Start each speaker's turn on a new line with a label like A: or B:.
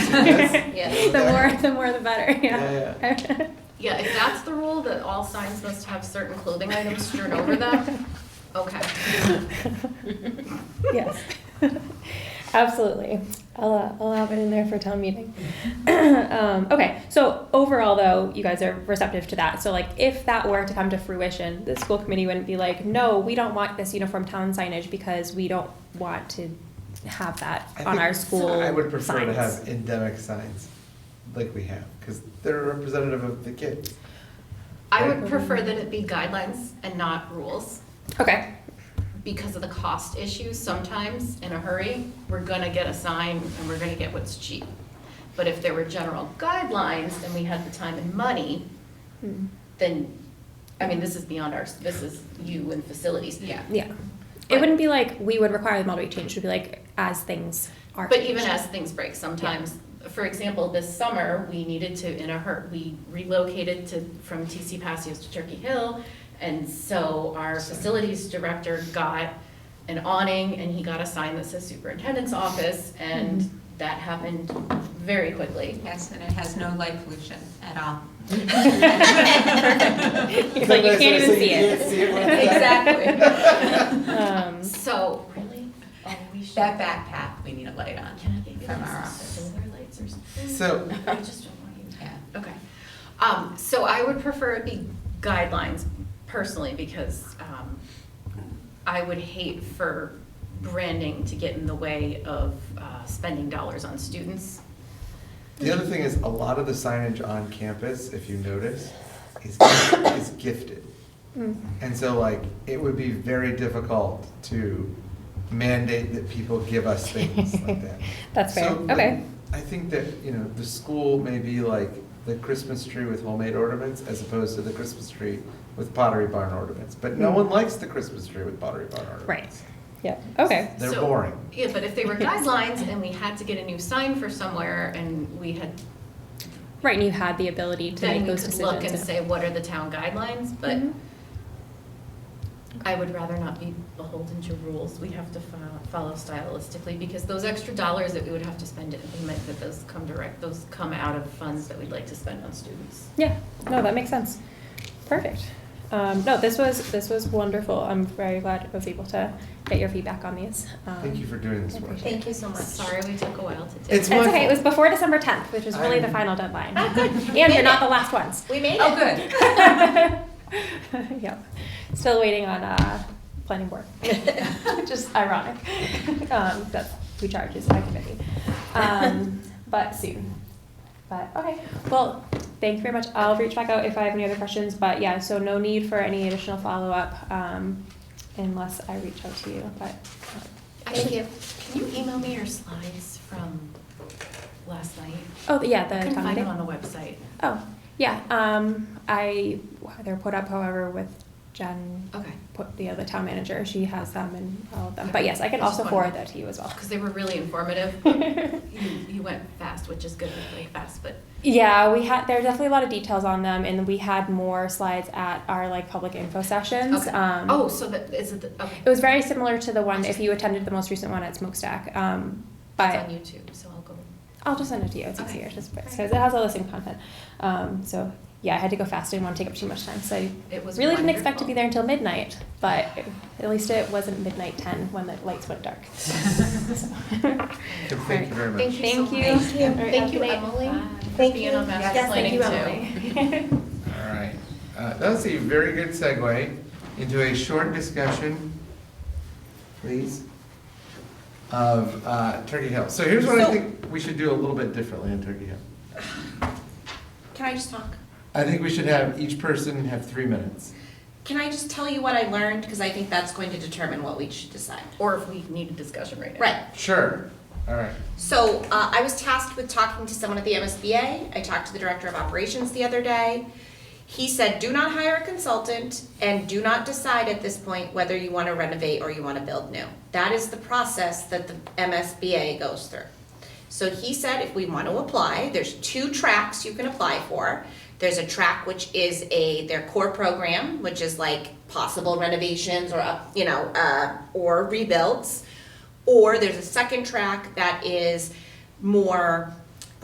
A: Yes.
B: The more, the more the better,
C: Yeah,
B: yeah.
A: Yeah, if that's the rule, that all signs must have certain clothing items strewn over them, okay.
B: Yes, absolutely. I'll, uh, I'll have it in there for town meeting. Um, okay, so overall though, you guys are receptive to that. So like if that were to come to fruition, the school committee wouldn't be like, no, we don't want this uniform town signage because we don't want to have that
C: I
B: on
C: think
B: our school
C: I would prefer to
B: signs."
C: have endemic signs like we have, because they're representative of the kids.
A: I would prefer that it be guidelines and not rules,
B: Okay,
A: because of the cost issue, sometimes in a hurry, we're gonna get a sign and we're gonna get what's cheap. But if there were general guidelines and we had the time and money,
B: Hmm.
A: then, I mean, this is beyond our, this is you and facilities, yeah.
B: yeah. It
A: But-
B: wouldn't be like we would require the model to be changed. It would be like as things are.
A: But even
B: changed.
A: as things break, sometimes, for example, this summer, we needed to, in a hurt, we relocated to, from TC Passios to Turkey Hill. And so our facilities director got an awning and he got a sign that says superintendent's office and that happened very quickly.
D: Yes, and it has no light pollution at all.
B: It's like you can't even see it. Um,
A: So, really? Oh, we should.
D: That back path, we need a light on.
A: Can I get you
D: From our
A: some
D: office.
A: solar lights or something?
C: So-
A: I just don't want you.
D: Yeah.
A: Okay. Um, so I would prefer it be guidelines personally because, um, I would hate for branding to get in the way of, uh, spending dollars on students.
C: The other thing is, a lot of the signage on campus, if you notice, is, is gifted.
B: mm.
C: And so like, it would be very difficult to mandate that people give us things like that.
B: That's fair.
C: So, like,
B: Okay.
C: I think that, you know, the school may be like the Christmas tree with homemade ornaments as opposed to the Christmas tree with pottery barn ornaments. But no one likes the Christmas tree with pottery barn ornaments.
B: Hmm. Right. Yep. Okay.
C: They're
A: So-
C: boring.
A: Yeah, but if they were guidelines and we had to get a new sign for somewhere and we had,
B: Right, and you had the ability to
A: then
B: make
A: we
B: those
A: could
B: decisions.
A: look and say, what are the town guidelines? But
B: Mhm.
A: I would rather not be beholden to rules. We have to fo- follow stylistically because those extra dollars that we would have to spend to implement that those come direct, those come out of funds that we'd like to spend on students.
B: Yeah, no, that makes sense. Perfect. Um, no, this was this was wonderful. I'm very glad I was able to get your feedback on these. Um,
C: Thank you for doing this work.
B: Thank
A: you so much. Sorry we took a while to do.
C: It's
B: It's
C: wonderful.
B: okay. It was before December 10th, which was really the
C: I'm- Oh,
B: final deadline.
A: Ah, good.
B: and you're not the last ones.
A: We made
D: Oh, good.
B: yep. Still waiting on uh, planning board. Just ironic. Um, that's who charges my committee. Um, but soon. But okay. Well, thank you very much. I'll reach back out if I have any other questions. But yeah, so no need for any additional follow up um, unless I reach out to you. But um,
A: Actually, can you email me your slides from last night?
B: oh yeah, the
A: I couldn't
B: town
A: find
B: meeting.
A: them on the website.
B: Oh yeah. Um, I they're put up, however, with Jen
A: Okay.
B: put the other town manager, she has them and all of them. But yes, I can also forward that to you as well.
A: Because they were really informative. but You, you went fast, which is good, really fast, but
B: Yeah, we had, there are definitely a lot of details on them and we had more slides at our like public info sessions.
A: Okay.
B: Um,
A: Oh, so that, is it, the- okay.
B: It was very similar to the one, if you attended the most recent one at Smokestack. Um,
A: It's
B: but
A: on YouTube, so I'll go.
B: I'll just send it to you, it's
A: Okay.
B: easier, just because
A: Alright.
B: it has all the same content. Um, so yeah, I had to go fast, I didn't want to take up too much time, so I
A: It was
B: really didn't expect to be
A: wonderful.
B: there until midnight, but at least it wasn't midnight ten when the lights went dark. So.
C: Kim, Thank you very much.
A: Thank you so
B: Thank you. Thank you.
A: much.
B: All right,
A: Thank you,
B: have a good
A: Emily,
B: night.
A: for being on master planning too.
C: All right, Uh, that was a very good segue into a short discussion, please, of uh, Turkey Hill. So here's what I
E: So-
C: think we should do a little bit differently in Turkey Hill.
E: Can I just talk?
C: I think we should have each person have three minutes.
E: Can I just tell you what I learned? Because I think that's going to determine what we should decide.
A: Or if we need a discussion right now.
E: Right.
C: Sure, all right.
E: So uh, I was tasked with talking to someone at the MSBA. I talked to the director of operations the other day. He said, do not hire a consultant and do not decide at this point whether you want to renovate or you want to build new. That is the process that the MSBA goes through. So he said, if we want to apply, there's two tracks you can apply for. There's a track which is a, their core program, which is like possible renovations or, up- you know, uh, or rebuilds. Or there's a second track that is more